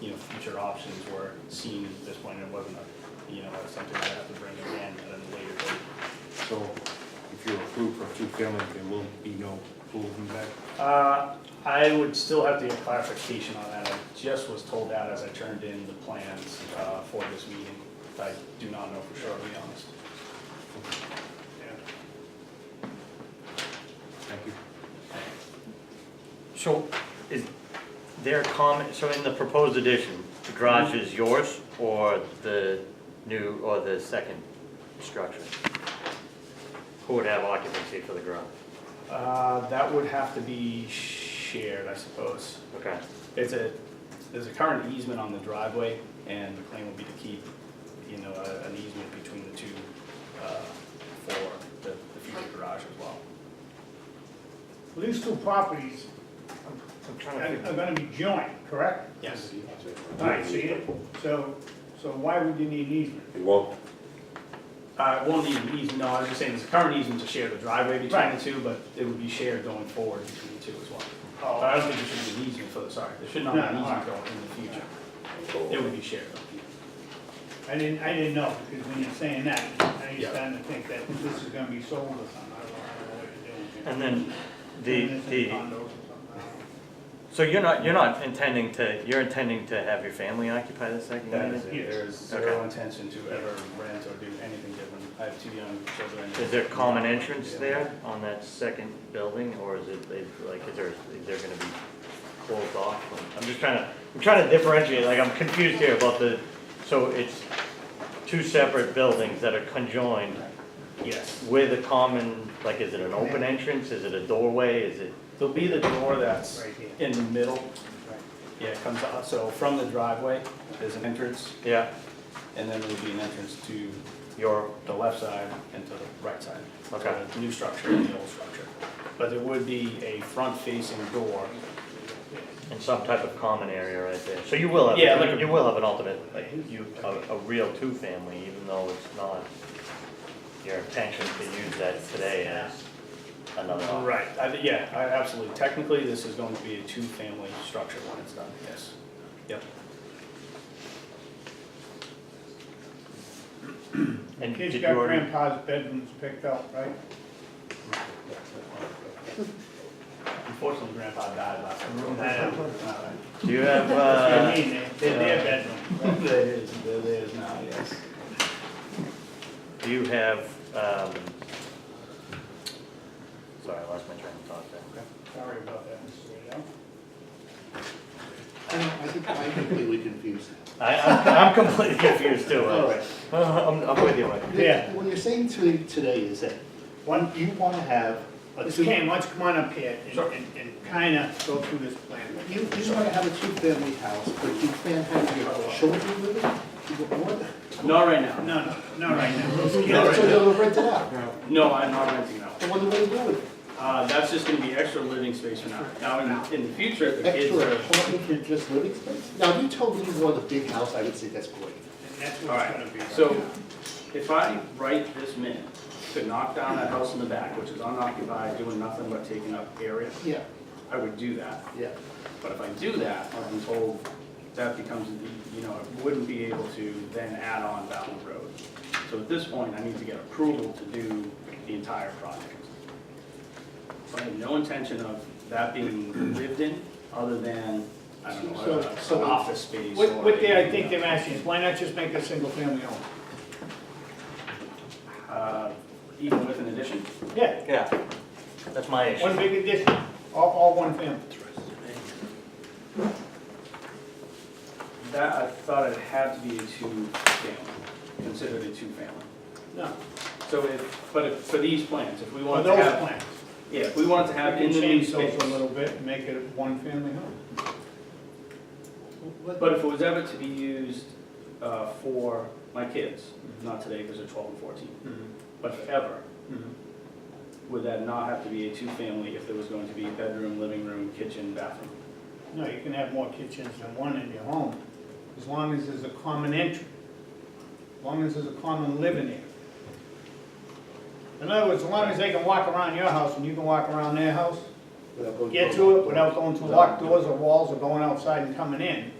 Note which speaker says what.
Speaker 1: you know, future options were seen at this point, it wasn't, a you know, something I'd have to bring in at a later date.
Speaker 2: So if you're approved for two-family, there will be no pool in back?
Speaker 1: Uh, I would still have to get clarification on that, I just was told that as I turned in the plans, uh, for this meeting. I do not know for sure, to be honest. Yeah.
Speaker 2: Thank you.
Speaker 3: So is their comment, so in the proposed addition, the garage is yours or the new, or the second structure? Who would have occupancy for the garage?
Speaker 1: Uh, that would have to be shared, I suppose.
Speaker 3: Okay,
Speaker 1: It's a, there's a current easement on the driveway, and the plan would be to keep, you know, a- an easement between the two uh, for the the future garage as well.
Speaker 4: Well, These two properties
Speaker 3: I'm
Speaker 4: are
Speaker 3: trying to,
Speaker 4: are gonna be joined, correct?
Speaker 1: Yes.
Speaker 4: All right, see it? So, so why would you need an easement?
Speaker 5: It won't,
Speaker 1: Uh, it won't need an easement, no, I was just saying, there's a current easement to share the driveway between the
Speaker 4: Right.
Speaker 1: two, but it would be shared going forward between the two as well. But
Speaker 4: Oh,
Speaker 1: I don't think there should be an easement for, the sorry, there should not be an
Speaker 4: No, no,
Speaker 1: easement
Speaker 4: all
Speaker 1: going in the future.
Speaker 5: go
Speaker 1: It
Speaker 5: away.
Speaker 1: would be shared.
Speaker 4: I didn't, I didn't know, because when you're saying that, now
Speaker 1: Yeah.
Speaker 4: you're starting to think that this is gonna be sold or something, I don't know what you're doing here.
Speaker 3: and then the,
Speaker 4: Turn this into
Speaker 3: the,
Speaker 4: condos or something,
Speaker 3: so you're not, you're not intending to, you're intending to have your family occupy the second
Speaker 1: That
Speaker 3: unit?
Speaker 1: is it, there is zero intention to ever rent or do anything different. I have two young children.
Speaker 3: Is there common entrance there on that second building, or is it, is- like, is there, is there gonna be closed off? I'm just trying to, I'm trying to differentiate, like, I'm confused here about the, so it's two separate buildings that are conjoined
Speaker 1: Yes.
Speaker 3: with a common, like, is it an open entrance, is it a doorway, is it?
Speaker 1: There'll be the door that's
Speaker 4: Right here.
Speaker 1: in the middle,
Speaker 4: Right.
Speaker 1: yeah, it comes out, so from the driveway, there's an entrance,
Speaker 3: Yeah.
Speaker 1: and then there'll be an entrance to
Speaker 3: Your,
Speaker 1: the left side and to the right side. So
Speaker 3: Okay.
Speaker 1: the New structure and the old structure. But there would be a front-facing door.
Speaker 3: and some type of common area right there, so you will have,
Speaker 1: Yeah, like
Speaker 3: you
Speaker 1: a-
Speaker 3: you will have an ultimate, like, you, a, a real two-family, even though it's not your intention to use that today as another option.
Speaker 1: Right. I thi- Yeah, I- absolutely. Technically, this is going to be a two-family structure when it's done, yes. Yep.
Speaker 3: And did
Speaker 4: Kids
Speaker 3: you
Speaker 4: got
Speaker 3: already,
Speaker 4: grandpa's bedrooms picked out, right?
Speaker 1: Unfortunately, Grandpa died last year.
Speaker 3: do you have,
Speaker 4: I
Speaker 3: uh,
Speaker 4: mean, they're, they're their bedroom.
Speaker 1: There is, there is now, yes.
Speaker 3: do you have, um, sorry, I lost my train of thought there.
Speaker 4: Sorry about that, Mr. Riddell.
Speaker 6: I know, I think I'm completely confused.
Speaker 3: I, I'm, I'm completely confused too.
Speaker 6: All
Speaker 3: uh,
Speaker 1: Oh.
Speaker 6: right.
Speaker 3: I'm, I'm with you, Mike.
Speaker 4: Yeah.
Speaker 6: What you're saying to me today is that, one, you want to have a
Speaker 4: Miss
Speaker 6: two, you,
Speaker 4: Kane, let's come on up here and, and, and kinda go through this plan.
Speaker 6: you want to have a two-family house, but you can't have your children living? What?
Speaker 1: Not right now.
Speaker 4: No, no, not right now.
Speaker 6: So you'll rent it out,
Speaker 1: No, I'm not renting now.
Speaker 6: and what do they do with it?
Speaker 1: Uh, that's just gonna be extra living space for now. Now, in, in the future, if the kids
Speaker 6: Extra
Speaker 1: are.
Speaker 6: apartment for just living space? Now, if you told me you want a big house, I would say that's great.
Speaker 4: And that's
Speaker 1: All
Speaker 4: what
Speaker 1: right,
Speaker 4: it's gonna be. right
Speaker 1: So
Speaker 4: now.
Speaker 1: if I right this minute to knock down that house in the back, which is unoccupied, doing nothing but taking up area,
Speaker 6: Yeah,
Speaker 1: I would do that.
Speaker 6: yeah.
Speaker 1: But if I do that, I've been told that becomes, you know, I wouldn't be able to then add on down the road. So at this point, I need to get approval to do the entire project. So I have no intention of that being lived in, other than, I don't know,
Speaker 4: So-
Speaker 1: uh,
Speaker 6: so-
Speaker 1: an office space or.
Speaker 4: What, what they, I think
Speaker 1: a,
Speaker 4: they're asking is, why not just make a single family home?
Speaker 1: uh, Even with an addition?
Speaker 4: Yeah,
Speaker 3: Yeah, that's my
Speaker 4: one
Speaker 3: issue.
Speaker 4: big addition, all, all one family.
Speaker 1: That, I thought it had to be a two-family, considered a two-family.
Speaker 4: No,
Speaker 1: So if, but if, for these plans, if we
Speaker 4: for
Speaker 1: wanted to
Speaker 4: those
Speaker 1: have,
Speaker 4: plans.
Speaker 1: yeah, if we wanted to
Speaker 4: We
Speaker 1: have in the
Speaker 4: can
Speaker 1: new
Speaker 4: change those
Speaker 1: space.
Speaker 4: a little bit and make it a one family home.
Speaker 1: But if it was ever to be used, uh, for my kids, not today because they're twelve and fourteen,
Speaker 4: Mm-hmm.
Speaker 1: but forever,
Speaker 4: Mhm.
Speaker 1: would that not have to be a two-family if there was going to be a bedroom, living room, kitchen, bathroom?
Speaker 4: No, you can have more kitchens than one in your home, as long as there's a common entry, as long as there's a common living area. In other words, as long as they can walk around your house and you can walk around their house,
Speaker 6: Without going-
Speaker 4: get to it without going through locked doors or walls or going outside and coming in,